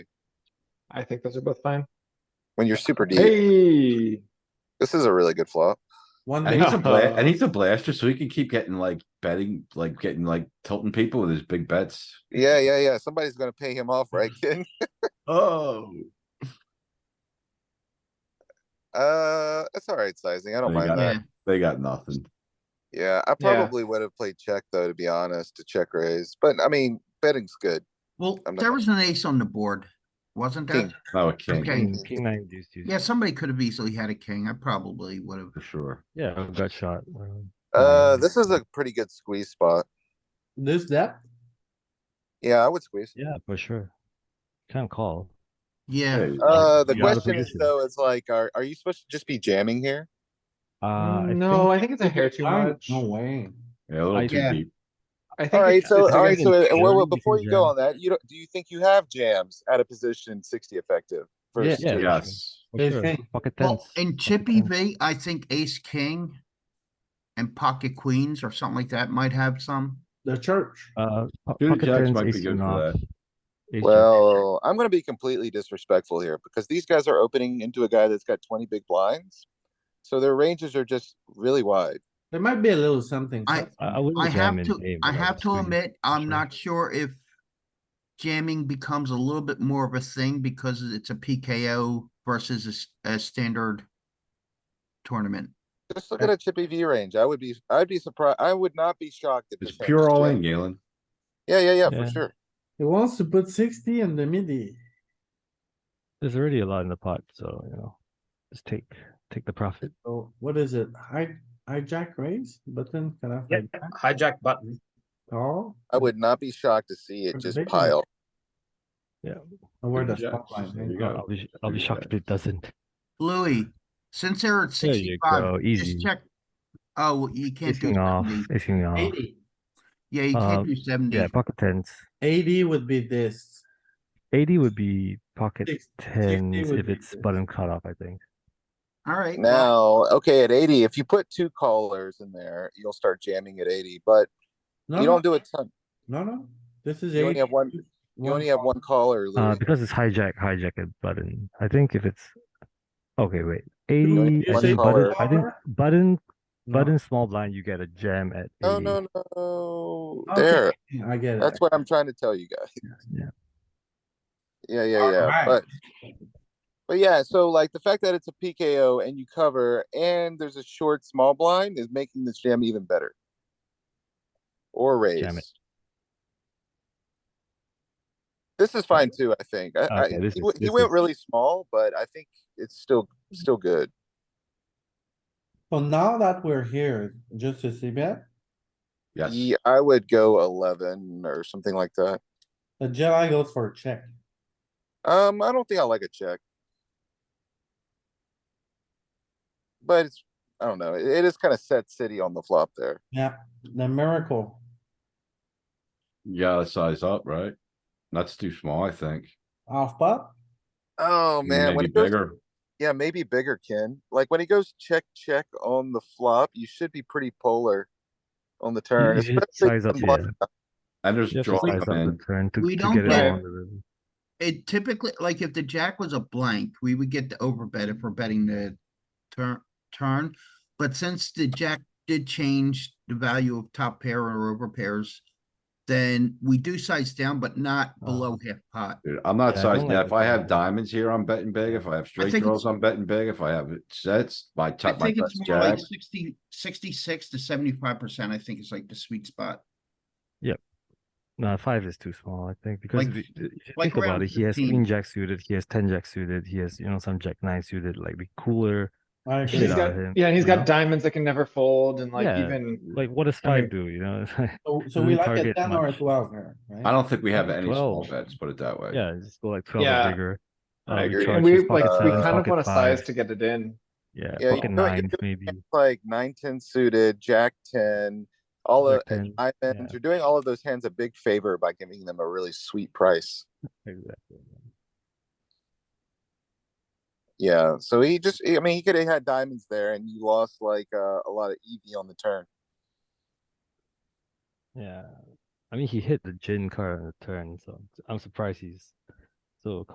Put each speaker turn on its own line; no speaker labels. I think those are both fine.
When you're super deep,
Hey,
this is a really good flop.
One
And he's a
day,
bla- and he's a blaster, so he can keep getting like betting, like getting like tilting people with his big bets.
Yeah, yeah, yeah. Somebody's gonna pay him off, right, kid?
Oh.
Uh, it's alright sizing. I don't
There you
mind
go.
that.
Yeah.
They got nothing.
Yeah, I
Yeah.
probably would have played check though, to be honest, to check raise, but I mean, betting's good.
Well,
I'm not-
there was an ace on the board, wasn't there?
King.
No, a king,
Okay.
King, king nine deuce deuce.
Yeah, somebody could have easily had a king. I probably would have.
for sure.
Yeah, a gut shot. um,
Uh,
Mm.
this is a pretty good squeeze spot.
This depth,
Yeah, I would squeeze.
Yeah, for sure. Can't call.
Yeah,
Hey,
Uh, the
you out of
question is
position.
though, it's like, are, are you supposed to just be jamming here?
Mm,
Uh, I
no,
think-
I think it's a hair too
I-
much.
no way.
Yeah, a little
I-
too
Yeah.
deep.
I think
Alright,
it's-
so,
it's a
alright,
good-
so,
in
uh, well, well,
theory, you
before
can
you go
jam.
on that, you don't, do you think you have jams at a position sixty effective?
Yeah,
versus
yeah.
two?
Yes.
for
Ace
sure,
king.
Pocket
well,
tens.
in Chippy V, I think ace, king. And pocket queens or something like that might have some.
The church.
Uh, po-
Two
pocket
jacks
tens,
might be
ace
good
king
for
off.
that.
ace jack.
Well, I'm gonna be completely disrespectful here because these guys are opening into a guy that's got twenty big blinds. So their ranges are just really wide.
There might be a little something.
I-
but-
I, I wouldn't
I
jam
have
in
to,
game,
I
but
have to
would squeeze it
admit,
for
I'm
sure.
not sure if. Jamming becomes a little bit more of a thing because it's a PKO versus a s- a, standard. Tournament.
Just look at a chippy V range. I would be, I'd be surprised. I would not be shocked if.
It's
this hand
pure
was
all
jammed.
in, Galen.
Yeah, yeah, yeah, for
Yeah.
sure.
He wants to put sixty in the midi.
There's already a lot in the pot, so, you know, just take, take the profit.
So what is it? Hi, hijack raise button, can I?
Yeah,
hijack
hijack button.
Call?
I would not be shocked to see it
Pretty
just
big one.
pile.
Or where the
Hijack,
spot line
there you
is.
go.
I'll be, sh- I'll be
Three
shocked if it doesn't.
Louis, since they're at
There you
sixty-five,
go,
just
easy.
check. Oh, well, you can't
Ace
do
king off,
seventy.
ace king off.
Eighty.
Yeah, you can't
Um,
do seventy.
Yeah, pocket tens.
80 would be this.
Eighty would be pocket
Six- 60
tens
would
if
be
it's
good.
button cutoff, I think.
Alright.
Now, okay, at eighty, if you put two callers in there, you'll start jamming at eighty, but
No,
you
no,
don't do a ton.
no, no. This is
You only
eighty.
have one- You only have
call.
one Ah, caller,
Uh,
Louis.
because it's hijack, hijack a button. I think if it's, okay, wait,
only
eighty,
get
I think
one
button,
color.
I think button,
No.
button small blind, you get a jam at
No,
eighty.
no, no,
Okay,
there,
I get it.
that's what I'm trying to tell you guys.
Yeah.
Yeah, yeah, yeah,
Alright.
but. But yeah, so like the fact that it's a PKO and you cover and there's a short small blind is making this jam even better. Or raise.
Jam it.
This is fine too, I think. I, I,
Okay, this
he
is-
went- he
this
went
is-
really small, but I think it's still, still good.
Well, now that we're here, just to see bet,
Yes.
Yeah, I would go eleven or something like that.
the Jedi goes for a check.
Um, I don't think I like a check. But it's, I don't know, it it is kind of set city on the flop there.
Yeah, the miracle.
You gotta size up, right? That's too small, I think.
Off pop,
Oh, man, when
Maybe
it goes,
bigger.
yeah, maybe bigger, Ken. Like when it goes check, check on the flop, you should be pretty polar on the turn.
you should
especially
size up, uh,
when blood-
yeah.
And there's
You have to
draw
size up the
in.
turn to,
We
to
don't
get it
get-
all under the-
It typically, like if the jack was a blank, we would get the overbet if we're betting the turn, turn. But since the jack did change the value of top pair or over pairs, then we do size down, but not
Uh,
below half pot.
Dude, I'm not
Yeah, I
sizing
don't
that.
like
If
the
I have
size.
diamonds here, I'm betting big. If I have straight
think
draws,
it's-
I'm betting big. If I have it sets, my
I
top, my
think
best
it's more
jack.
like 60 66 to seventy-five percent, I think is like the sweet spot.
No, five is too small, I think, because
Like-
if you- if you
like
think about
around
it, he has
15.
queen jack suited, he has ten jack suited, he has, you know, some jack nine suited, like the cooler.
I
Shit
agree.
He's
out
got,
of him,
yeah, and he's
you know?
got diamonds that can never fold and like
Yeah,
even,
Like, what does
I mean-
five do, you know? It's like-
So, so
Doesn't
we like a
target
ten or a
much.
twelve here, right?
I don't think we have
Like
any small
12.
bets, put it that way.
Yeah, just go like twelve
Yeah,
or bigger.
I
Uh, we
agree.
charge
and we,
his
like,
pocket
we
sevens,
kind of
pocket
want to size
fives,
to get it in.
Yeah,
Yeah, you
pocket
know, you
nines
do it
maybe.
Like nine, ten suited, jack ten, all of,
Jack 10,
I,
yeah.
you're doing all of those hands a big favor by giving them a really sweet price.
Exactly.
Yeah, so he just, I mean, he could have had diamonds there and you lost like, uh, a lot of EV on the turn.
Yeah, I mean, he hit the gin card on the turn, so I'm surprised he's so